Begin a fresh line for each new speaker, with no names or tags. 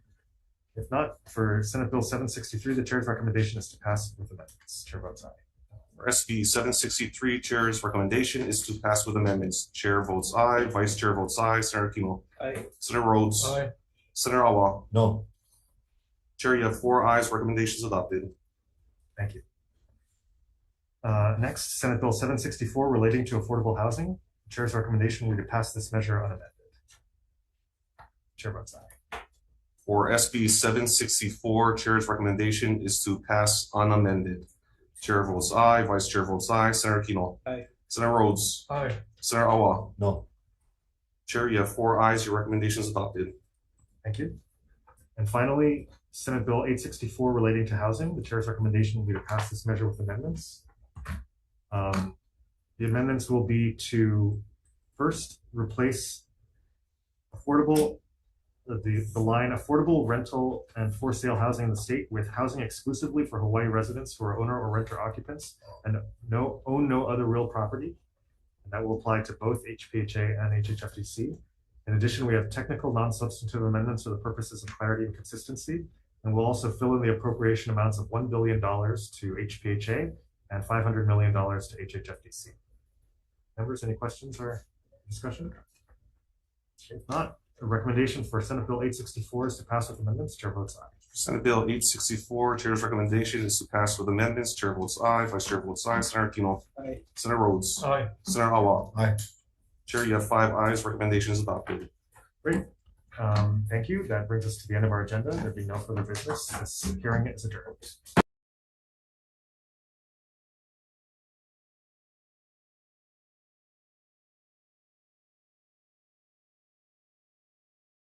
If not, for Senate Bill seven sixty-three, the chair's recommendation is to pass with amendments. Chair votes aye.
For SB seven sixty-three, Chair's recommendation is to pass with amendments. Chair votes aye, Vice Chair votes aye, Senator Kimo,
Aye.
Senator Rhodes,
Aye.
Senator Alwal.
No.
Chair, you have four ayes, recommendations adopted.
Thank you. Uh, next, Senate Bill seven sixty-four relating to affordable housing. Chair's recommendation will be to pass this measure unamended. Chair votes aye.
For SB seven sixty-four, Chair's recommendation is to pass unamended. Chair votes aye, Vice Chair votes aye, Senator Kino.
Aye.
Senator Rhodes,
Aye.
Senator Alwal.
No.
Chair, you have four ayes, your recommendation is adopted.
Thank you. And finally, Senate Bill eight sixty-four relating to housing, the chair's recommendation will be to pass this measure with amendments. Um, The amendments will be to first replace affordable, uh, the, the line affordable rental and for sale housing in the state with housing exclusively for Hawaii residents who are owner or renter occupants and no, own no other real property. And that will apply to both HPHA and HHFDC. In addition, we have technical non-substantive amendments for the purposes of clarity and consistency. And we'll also fill in the appropriation amounts of one billion dollars to HPHA and five hundred million dollars to HHFDC. Members, any questions or discussion? If not, the recommendation for Senate Bill eight sixty-four is to pass with amendments. Chair votes aye.
Senate Bill eight sixty-four, Chair's recommendation is to pass with amendments. Chair votes aye, Vice Chair votes aye, Senator Kino.
Aye.
Senator Rhodes,
Aye.
Senator Alwal.
Aye.
Chair, you have five ayes, recommendation is adopted.
Um, thank you. That brings us to the end of our agenda. There being no further business, this hearing is adjourned.